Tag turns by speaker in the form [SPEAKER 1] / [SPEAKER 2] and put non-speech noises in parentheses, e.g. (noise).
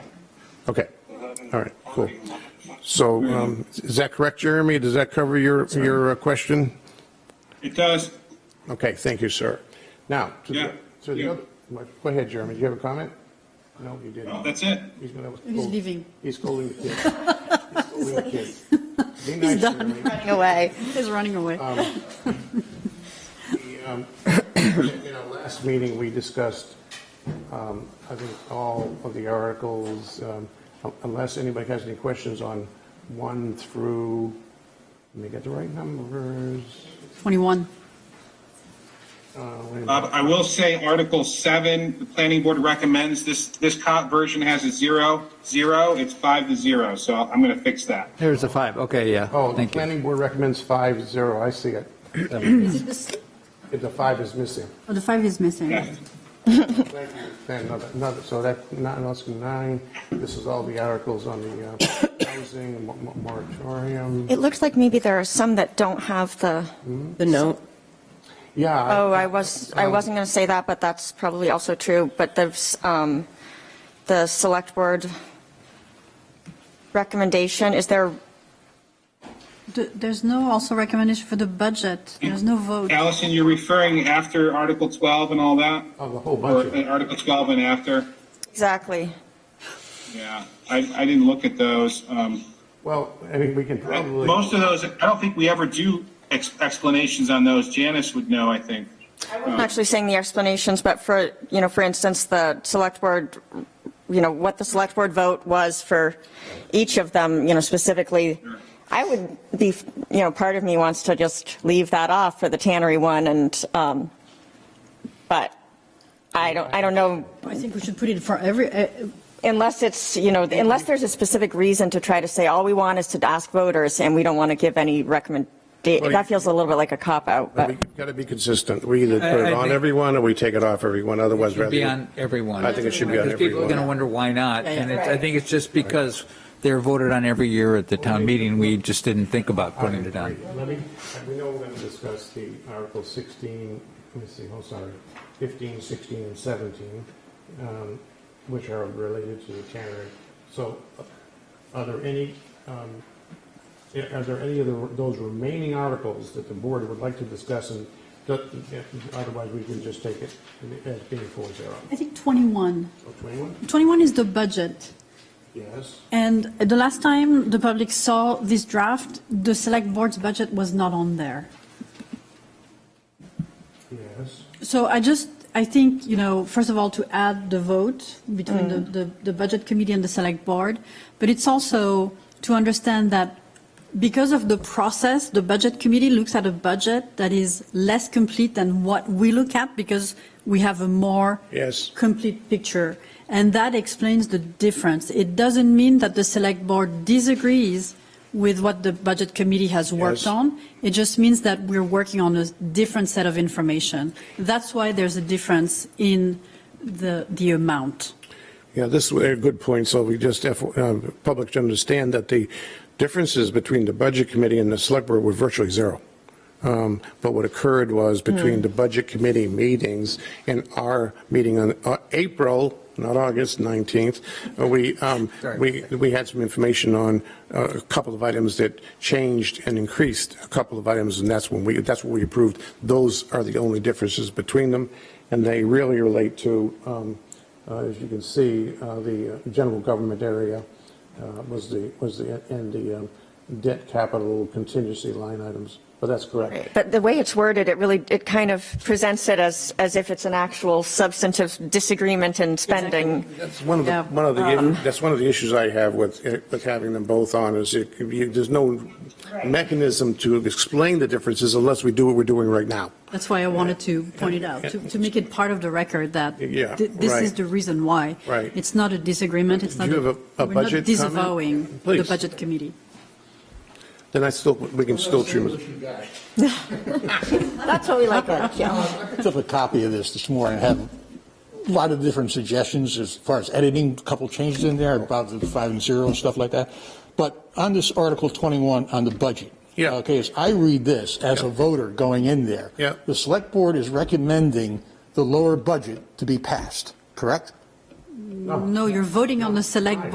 [SPEAKER 1] Okay, all right, cool. So um, is that correct, Jeremy? Does that cover your, your uh, question?
[SPEAKER 2] It does,
[SPEAKER 1] Okay, thank you, sir. Now, to
[SPEAKER 2] Yeah,
[SPEAKER 1] the, to the
[SPEAKER 2] yeah.
[SPEAKER 1] other, go ahead, Jeremy, do you have a comment? No, you didn't.
[SPEAKER 2] Well, that's it.
[SPEAKER 1] He's gonna.
[SPEAKER 3] He's leaving.
[SPEAKER 1] He's scolding the
[SPEAKER 3] (laughs)
[SPEAKER 1] kids. He's scolding the kids. Be nice,
[SPEAKER 3] He's done
[SPEAKER 1] Jeremy.
[SPEAKER 3] (laughs) running away. He's running away.
[SPEAKER 1] Um, (coughs) In our last meeting, we discussed, um, I think, all of the articles, um, unless anybody has any questions on one through, let me get the right numbers.
[SPEAKER 3] 21.
[SPEAKER 1] Uh, wait a minute.
[SPEAKER 2] Uh, I will say Article 7, the planning board recommends, this, this cop version has a zero, zero, it's five to zero, so I'm going to fix that.
[SPEAKER 4] There's a five, okay, yeah.
[SPEAKER 1] Oh, the
[SPEAKER 4] Thank you.
[SPEAKER 1] planning board recommends five, zero, I see it. If The five is missing.
[SPEAKER 3] Oh, the five is missing.
[SPEAKER 2] Yeah.
[SPEAKER 1] Then another, another, so that, not, that's nine, this is all the articles on the uh, housing mo- mo- moratorium.
[SPEAKER 5] It looks like maybe there are some that don't have the,
[SPEAKER 6] The note,
[SPEAKER 1] Yeah. um,
[SPEAKER 5] oh, I was, I wasn't going to say that, but that's probably also true, but there's, um, the select board recommendation, is there,
[SPEAKER 3] Th- There's no also recommendation for the budget. There's no vote.
[SPEAKER 2] Allison, you're referring after Article 12 and all that?
[SPEAKER 1] Of the whole
[SPEAKER 2] Or
[SPEAKER 1] bunch
[SPEAKER 2] uh,
[SPEAKER 1] of,
[SPEAKER 2] Article 12 and after?
[SPEAKER 5] exactly.
[SPEAKER 2] Yeah, I, I didn't look at those. Um,
[SPEAKER 1] well, I mean, we can
[SPEAKER 2] I-
[SPEAKER 1] probably.
[SPEAKER 2] Most of those, I don't think we ever do ex- explanations on those. Janice would know, I think.
[SPEAKER 5] I'm not actually saying the explanations, but for, you know, for instance, the select board, you know, what the select board vote was for each of them, you know, specifically. I would be, you know, part of me wants to just leave that off for the tannery one and, um, but I don't, I don't know,
[SPEAKER 3] I think we should put it for every, uh,
[SPEAKER 5] unless it's, you know, unless there's a specific reason to try to say, all we want is to ask voters and we don't want to give any recommend, that feels a little bit like a cop out, but.
[SPEAKER 1] We've got to be consistent. We either put
[SPEAKER 4] I-
[SPEAKER 1] it
[SPEAKER 4] I
[SPEAKER 1] on
[SPEAKER 4] think-
[SPEAKER 1] everyone or we take it off everyone, otherwise.
[SPEAKER 4] Should be
[SPEAKER 1] rather-
[SPEAKER 4] on everyone.
[SPEAKER 1] I think it should be on
[SPEAKER 4] Because People are going to
[SPEAKER 1] everyone.
[SPEAKER 4] wonder why not,
[SPEAKER 3] Yeah, yeah.
[SPEAKER 4] and it's- I think it's just because they're voted on every year at the town meeting, we just didn't think about putting it on.
[SPEAKER 1] Let me, we know we're going to discuss the Article 16, let me see, oh, sorry, 15, 16, and 17, um, which are related to the tannery. So uh, are there any, um, yeah, are there any of the- those remaining articles that the board would like to discuss? And that- uh, otherwise, we can just take it as being 4-0.
[SPEAKER 3] I think 21.
[SPEAKER 1] So 21?
[SPEAKER 3] 21 is the budget.
[SPEAKER 1] Yes.
[SPEAKER 3] And the last time the public saw this draft, the select board's budget was not on there.
[SPEAKER 1] Yes.
[SPEAKER 3] So I just, I think, you know, first of all, to add the vote between the, the, the budget committee and the select board, but it's also to understand that because of the process, the budget committee looks at a budget that is less complete than what we look at because we have a more
[SPEAKER 1] Yes.
[SPEAKER 3] complete picture. And that explains the difference. It doesn't mean that the select board disagrees with what the budget committee has worked
[SPEAKER 1] Yes.
[SPEAKER 3] on. It just means that we're working on a different set of information. That's why there's a difference in the, the amount.
[SPEAKER 1] Yeah, this is a good point, so we just, have, um, public to understand that the differences between the Budget Committee and the Select Board were virtually zero. Um, But what occurred was between the Budget Committee meetings and our meeting on uh, April, not August 19th, uh, we, um,
[SPEAKER 4] Sorry.
[SPEAKER 1] we, we had some information on uh, a couple of items that changed and increased a couple of items, and that's when we, that's what we approved. Those are the only differences between them, and they really relate to um, uh, As you can see, uh, the uh, general government area uh, was the, was the, and the um, debt capital contingency line items, but that's correct.
[SPEAKER 5] But the way it's worded, it really, it kind of presents it as, as if it's an actual substantive disagreement in spending.
[SPEAKER 1] That's one of the,
[SPEAKER 3] Yeah.
[SPEAKER 1] one of the, that's one of the issues I have with, with having them both on, is it- you- there's no mechanism to explain the differences unless we do what we're doing right now.
[SPEAKER 3] That's why I wanted to point it out, to, to make it part of the record that
[SPEAKER 1] Yeah,
[SPEAKER 3] th- this is
[SPEAKER 1] right.
[SPEAKER 3] the reason why.
[SPEAKER 1] Right.
[SPEAKER 3] It's not a disagreement, it's
[SPEAKER 1] Do
[SPEAKER 3] not.
[SPEAKER 1] you have a- a
[SPEAKER 3] we're not
[SPEAKER 1] budget comment?
[SPEAKER 3] Disavowing the
[SPEAKER 1] Please.
[SPEAKER 3] budget committee.
[SPEAKER 1] Then I still, we can still treat it.
[SPEAKER 5] That's what we like about it.
[SPEAKER 7] Took a copy of this this morning, had a lot of different suggestions as far as editing, a couple changes in there about the five and zero and stuff like that. But on this Article 21 on the budget.
[SPEAKER 1] Yeah.
[SPEAKER 7] Okay, as I read this as a
[SPEAKER 1] Yeah.
[SPEAKER 7] voter going in there.
[SPEAKER 1] Yeah.
[SPEAKER 7] The select board is recommending the lower budget to be passed, correct?
[SPEAKER 1] Oh.
[SPEAKER 3] No, you're voting on the select